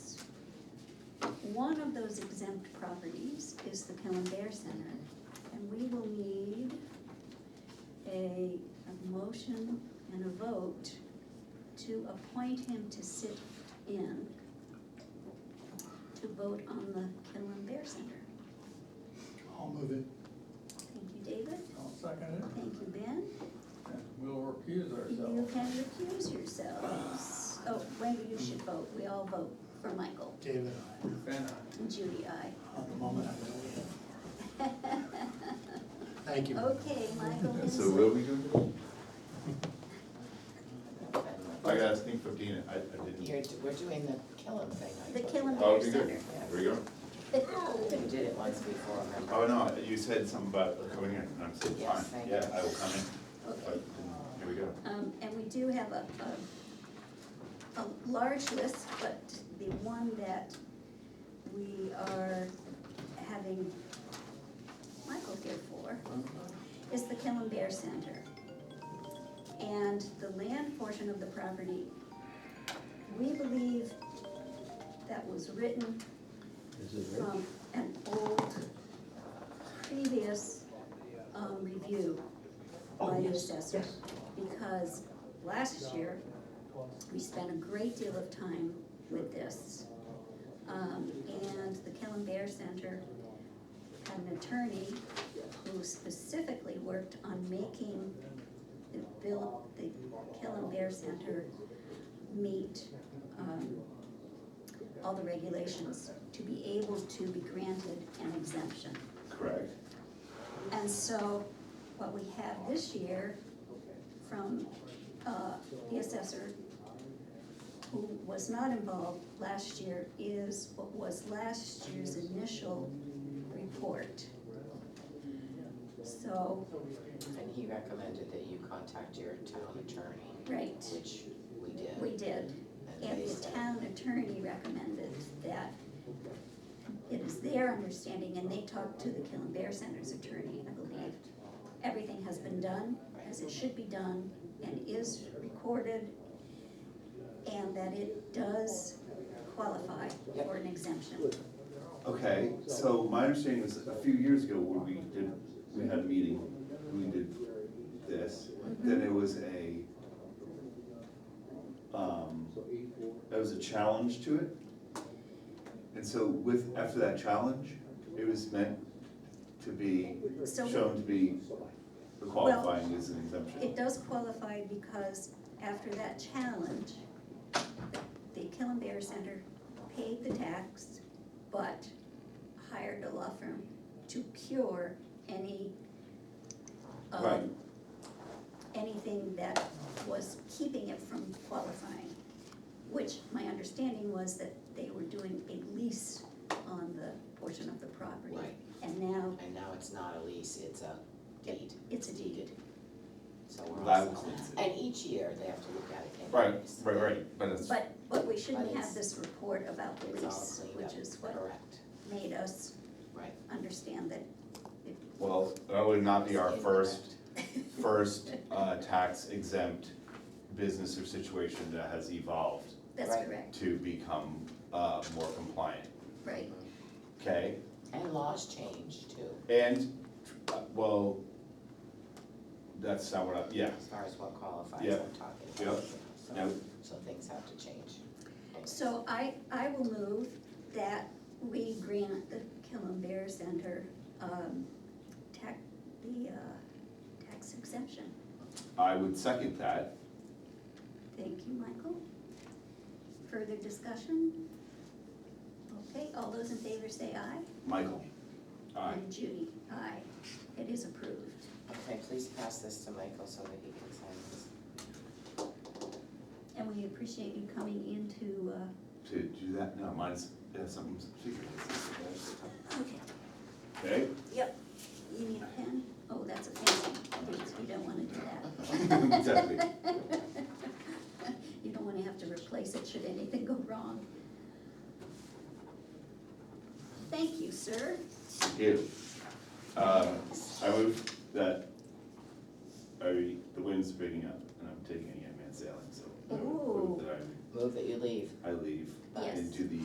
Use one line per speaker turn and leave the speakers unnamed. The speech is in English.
one of those exempt properties is the Pelham Bear Center. And we will need a, a motion and a vote to appoint him to sit in to vote on the Pelham Bear Center.
I'll move it.
Thank you, David.
I'll second it.
Thank you, Ben.
And We'll recuse
You
ourselves.
can recuse yourselves. Oh, Wendy, you should vote. We all vote for Michael.
David, I,
Ben,
And Judy, aye.
at the moment, I really am. Thank you.
Okay, Michael
And
is.
so what are we gonna do? I gotta sneak fifteen, in. I, I
You're,
didn't.
do- we're doing the Killam thing. aren't
The
you?
Killam
Oh,
Bear
okay, good.
Center.
There we go.
We did it once before, remember?
Oh, no, you said something about coming in, and I'm saying,
Yes,
fine,
thank
yeah,
you.
I will come in.
Okay.
But, Here we go.
Um, and we do have a, a, a large list, but the one that we are having Michael here for
Uh-huh.
is the Killen Bear Center. And the land portion of the property, we believe that was written
Is it right?
from an old previous um, review by the assessor. Because last year, we spent a great deal of time with this. Um, And the Kellen Bear Center had an attorney who specifically worked on making the bill, the Kellen Bear Center meet um, all the regulations to be able to be granted an exemption.
Correct.
And so what we have this year from uh, the assessor, who was not involved last year, is what was last year's initial report. So,
And he recommended that you contact your town attorney,
right,
which we
we
did.
did.
And
And
they
the
said,
town attorney recommended that it is their understanding, and they talked to the Killen Bear Center's attorney, I believe. Everything has been done as it should be done and is recorded, and that it does qualify for an exemption.
Okay, so my understanding is a few years ago, when we did, we had a meeting, we did this, then it was a, um, there was a challenge to it. And so with, after that challenge, it was meant to be,
So-
shown to be the qualifying as an
It
exemption.
does qualify because after that challenge, the Killen Bear Center paid the tax, but hired a law firm to cure any,
Right.
um, anything that was keeping it from qualifying, which my understanding was that they were doing a lease on the portion of the property.
Right.
And now
And now it's not a lease, it's a deed,
it's a deed.
deeded. So we're
That
all
was-
set. And each year, they have to look at it
Right,
anyways.
right, right, but it's,
But, but we shouldn't
But
have
it's-
this report about the
It's all
lease,
cleaned
which
up,
is what
correct,
made us
right.
understand that.
well, that would not be our
It's
first
incorrect.
first uh, tax exempt business or situation that has evolved
That's
Right.
correct,
to become uh, more compliant,
right.
okay?
And laws change too,
And, uh, well, that's not what I, yeah,
as far as what qualifies,
Yeah.
I'm talking about.
Yeah.
So-
no,
So things have to change.
So I, I will move that we grant the Killen Bear Center, um, tax, the, uh, tax exemption.
I would second that.
Thank you, Michael. Further discussion? Okay, all those in favor say aye.
Michael? Aye.
And Judy, aye. It is approved.
Okay, please pass this to Michael so that he can sign this.
And we appreciate you coming into, uh,
To do that, no, mine's, that's something secret.
Okay,
Okay?
yep. You need a pen? Oh, that's a pen. Thanks, you don't wanna do that.
Exactly.
You don't wanna have to replace it should anything go wrong. Thank you, sir.
Ew. Um, I move that, I, the wind's breaking up and I'm taking a young man sailing, so. I would move
Ooh.
That
Move that you leave.
I, I leave
Yes.
into the